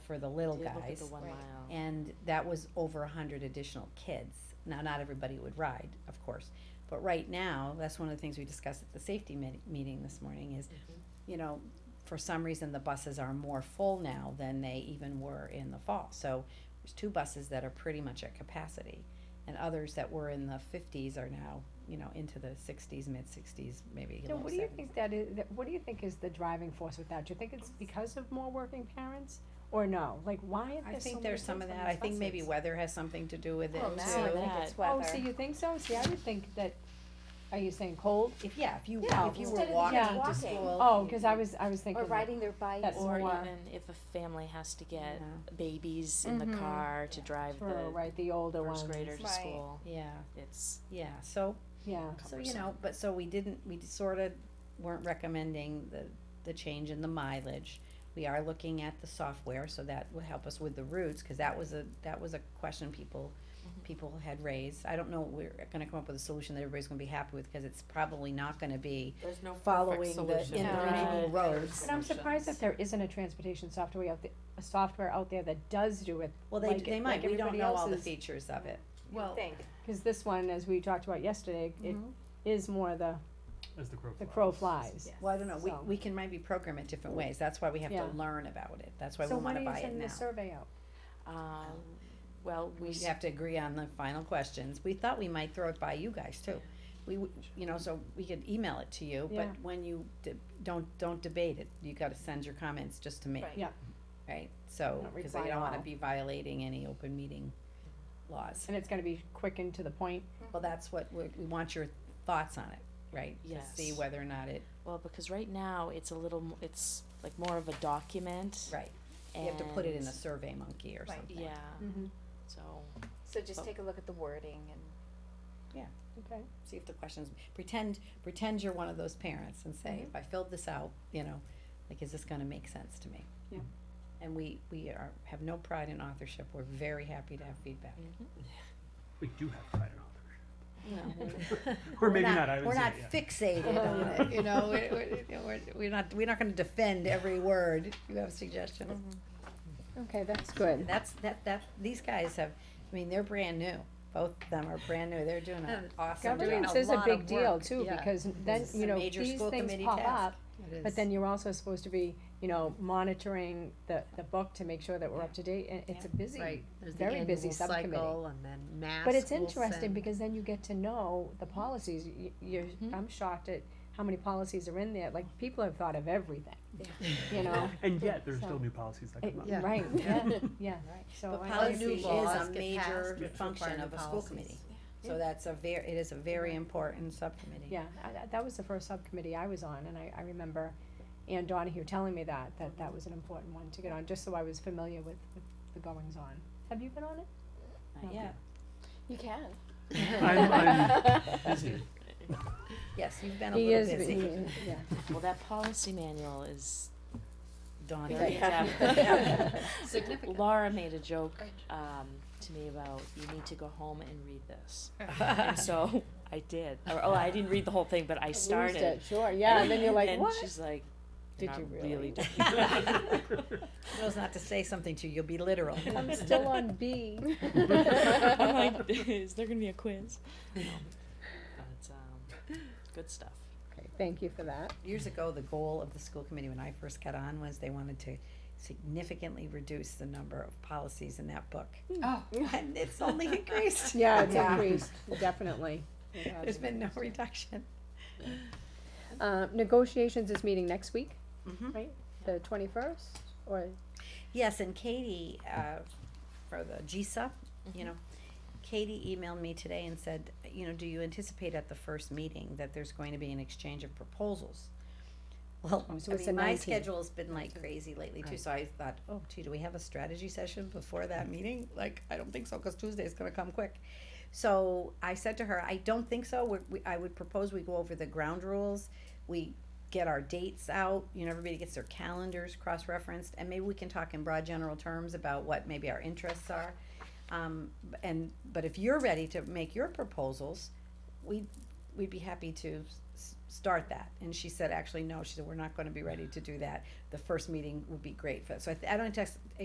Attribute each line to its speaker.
Speaker 1: for the little
Speaker 2: Did look at
Speaker 1: guys.
Speaker 2: the one
Speaker 3: Right.
Speaker 2: mile.
Speaker 1: And that was over a hundred additional kids. Now, not everybody would ride, of course. But right now, that's one of the things we discussed at the safety mi- meeting this morning is,
Speaker 4: Mm-hmm.
Speaker 1: you know, for some reason, the buses are more full now than they even were in the fall. So there's two buses that are pretty much at capacity. And others that were in the fifties are now, you know, into the sixties, mid sixties, maybe
Speaker 4: So
Speaker 1: low
Speaker 4: what do you
Speaker 1: seventies.
Speaker 4: think that is, that- what do you think is the driving force with that? Do you think it's because of more working parents? Or no? Like, why are
Speaker 1: I
Speaker 4: there so
Speaker 1: think
Speaker 4: many
Speaker 1: there's some of
Speaker 4: kids on
Speaker 1: that. I
Speaker 4: these
Speaker 1: think maybe
Speaker 4: buses?
Speaker 1: weather has something to do with it
Speaker 3: Well,
Speaker 2: now I
Speaker 1: too.
Speaker 2: think
Speaker 3: it's
Speaker 4: Oh, so you think so? See, I would think that, are you saying cold?
Speaker 1: If, yeah, if you,
Speaker 4: Yeah,
Speaker 1: if you were
Speaker 3: instead of
Speaker 1: walking
Speaker 4: just
Speaker 1: to
Speaker 3: walking.
Speaker 1: school.
Speaker 4: Oh, cause I was, I was thinking.
Speaker 3: Or riding their bike
Speaker 4: That's
Speaker 3: or
Speaker 2: Or
Speaker 4: more-
Speaker 2: even if a family has to get
Speaker 1: Yeah.
Speaker 2: babies in the
Speaker 3: Mhm.
Speaker 2: car to drive
Speaker 4: Sure,
Speaker 2: the
Speaker 4: right, the older ones.
Speaker 2: first grader to
Speaker 3: Right.
Speaker 2: school,
Speaker 1: Yeah,
Speaker 2: it's
Speaker 1: yeah, so,
Speaker 4: Yeah,
Speaker 1: so you
Speaker 2: cumbersome.
Speaker 1: know, but so we didn't, we sorta weren't recommending the, the change in the mileage. We are looking at the software, so that will help us with the routes, cause that was a, that was a question people,
Speaker 4: Mm-hmm.
Speaker 1: people had raised. I don't know, we're gonna come up with a solution that everybody's gonna be happy with, cause it's probably not gonna be
Speaker 5: There's no
Speaker 1: following the
Speaker 5: solution.
Speaker 1: individual
Speaker 2: Right.
Speaker 1: roads.
Speaker 4: but I'm surprised that there isn't a transportation software out, th- a software out there that does do it.
Speaker 1: Well, they,
Speaker 4: like-
Speaker 1: they
Speaker 4: like
Speaker 1: might, we don't
Speaker 4: everybody
Speaker 1: know all the
Speaker 4: else's.
Speaker 1: features of it.
Speaker 3: well, thing.
Speaker 4: Cause this one, as we talked about yesterday, it
Speaker 1: Mm-hmm.
Speaker 4: is more the,
Speaker 6: As the crow
Speaker 4: the
Speaker 6: flies.
Speaker 4: crow flies.
Speaker 1: Well, I don't know, we,
Speaker 4: So-
Speaker 1: we can maybe program it different ways, that's why we have to
Speaker 4: Yeah.
Speaker 1: learn about it, that's why we wanna buy it now.
Speaker 4: So when are you sending the survey out?
Speaker 2: Um, well, we
Speaker 1: We
Speaker 2: s-
Speaker 1: have to agree on the final questions, we thought we might throw it by you guys too. We, w- you know, so we could email it to you, but
Speaker 4: Yeah.
Speaker 1: when you, de- don't, don't debate it, you gotta send your comments just to me.
Speaker 3: Right.
Speaker 4: Yeah.
Speaker 1: Right, so,
Speaker 4: Not
Speaker 1: cause I
Speaker 4: reply
Speaker 1: don't wanna
Speaker 4: all.
Speaker 1: be violating any open meeting laws,
Speaker 4: And it's gonna be quick and to the point.
Speaker 1: well, that's what, we, we want your thoughts on it, right? To see
Speaker 2: Yes.
Speaker 1: whether or not it,
Speaker 2: well, because right now it's a little, m- it's like more of a document.
Speaker 1: right, you have to put it in a
Speaker 2: and-
Speaker 1: Survey Monkey or
Speaker 3: Right.
Speaker 1: something.
Speaker 2: Yeah,
Speaker 4: Mm-hmm.
Speaker 2: so,
Speaker 3: So just take a look at the wording and
Speaker 4: Okay.
Speaker 1: see if the questions, pretend, pretend you're one of those parents and
Speaker 4: Mm-hmm.
Speaker 1: say, if I filled this out, you know, like, is this gonna make sense to me?
Speaker 4: Yeah.
Speaker 1: And we, we are, have no pride in authorship, we're very happy to have feedback.
Speaker 6: We do have pride in
Speaker 1: No,
Speaker 6: Or maybe not, I would
Speaker 1: We're
Speaker 6: say,
Speaker 1: not
Speaker 6: yeah.
Speaker 1: fixated on it, you know, we're, we're- you know, we're, we're not, we're not gonna defend every word, you have suggestions.
Speaker 4: Mm-hmm. Okay, that's
Speaker 1: And
Speaker 4: good.
Speaker 1: that's, that, that, these guys have, I mean, they're brand new, both of them are brand new, they're doing an awesome job.
Speaker 4: Governance is a
Speaker 3: lot
Speaker 4: big
Speaker 3: of
Speaker 4: deal
Speaker 3: work,
Speaker 4: too,
Speaker 1: yeah.
Speaker 4: because then,
Speaker 1: It's a
Speaker 4: you know,
Speaker 1: major
Speaker 4: these
Speaker 1: school
Speaker 4: things
Speaker 1: committee
Speaker 4: pop
Speaker 1: task.
Speaker 4: up,
Speaker 1: It
Speaker 4: but
Speaker 1: is.
Speaker 4: then you're also supposed to be, you know, monitoring the, the book to make sure that we're up to date, and it's a busy,
Speaker 7: Right, there's the
Speaker 4: very busy
Speaker 7: annual
Speaker 4: subcommittee.
Speaker 7: cycle and then mass.
Speaker 4: But it's
Speaker 7: will
Speaker 4: interesting
Speaker 7: send-
Speaker 4: because then you get to know the policies, you, you're,
Speaker 1: Mm-hmm.
Speaker 4: I'm shocked at how many policies are in there, like, people have thought of everything, you know?
Speaker 6: And yet, there's
Speaker 4: So-
Speaker 6: still new policies that
Speaker 4: It-
Speaker 6: come up.
Speaker 7: Yeah.
Speaker 4: Right, yeah, yeah,
Speaker 1: Right.
Speaker 4: so.
Speaker 1: But
Speaker 4: I-
Speaker 1: policy
Speaker 7: new
Speaker 1: is
Speaker 7: laws
Speaker 1: a
Speaker 7: get passed
Speaker 1: major
Speaker 7: which
Speaker 1: function
Speaker 7: require
Speaker 1: of
Speaker 7: new
Speaker 1: a school
Speaker 7: policies.
Speaker 1: committee. So that's a ver, it is a very important subcommittee.
Speaker 4: Yeah, I, I- that was the first subcommittee I was on, and I, I remember Ann Donahue telling me that, that that was an important one to get on, just so I was familiar with, with the goings on. Have you been on it?
Speaker 1: Not yet.
Speaker 3: you can.
Speaker 6: I'm, I'm busy.
Speaker 1: Yes, you've been a little busy.
Speaker 4: yeah.
Speaker 2: well, that policy manual is
Speaker 1: Dawn,
Speaker 2: very
Speaker 1: yeah.
Speaker 2: depth. Laura made a joke, um, to me about, you need to go home and read this. And so I did. Or, oh, I didn't read the whole thing, but I started.
Speaker 4: uh, Sure, yeah, and then you're like,
Speaker 2: and
Speaker 4: what?
Speaker 2: she's like,
Speaker 4: Did
Speaker 2: "You're not
Speaker 4: you really?"
Speaker 2: really? doing
Speaker 1: knows not to say something to you, you'll be literal.
Speaker 4: I'm still on B.
Speaker 2: it." I'm like, is there gonna be a quiz? No. But um, good stuff.
Speaker 4: Okay, thank you for that.
Speaker 1: Years ago, the goal of the school committee when I first got on was they wanted to significantly reduce the number of policies in that book.
Speaker 3: Oh.
Speaker 1: And it's only increased.
Speaker 4: Yeah, it's
Speaker 1: Yeah.
Speaker 4: increased, definitely.
Speaker 1: There's been no reduction.
Speaker 4: Uh, negotiations is meeting next week,
Speaker 2: Mm-hmm.
Speaker 1: Mhm.
Speaker 4: right? The twenty-first, or?
Speaker 1: Yes, and Katie, uh, for the GSA, you know, Katie emailed me today and said, you know, do you anticipate at the first meeting that there's going to be an exchange of proposals? Well,
Speaker 4: Oh, so
Speaker 1: I
Speaker 4: it's
Speaker 1: mean,
Speaker 4: the
Speaker 1: my
Speaker 4: 19th.
Speaker 1: schedule's been like crazy lately too, so I thought, oh gee, do we have a strategy session before
Speaker 4: Mm.
Speaker 1: that meeting? Like, I don't think so, cause Tuesday's gonna come quick. So I said to her, I don't think so, we, we, I would propose we go over the ground rules, we get our dates out, you know, everybody gets their calendars cross-referenced, and maybe we can talk in broad general terms about what maybe our interests are. Um, b- and, but if you're ready to make your proposals, we, we'd be happy to s- s- start that. And she said, actually, no, she said, we're not gonna be ready to do that. The first meeting would be great for that. So I, th- I don't text,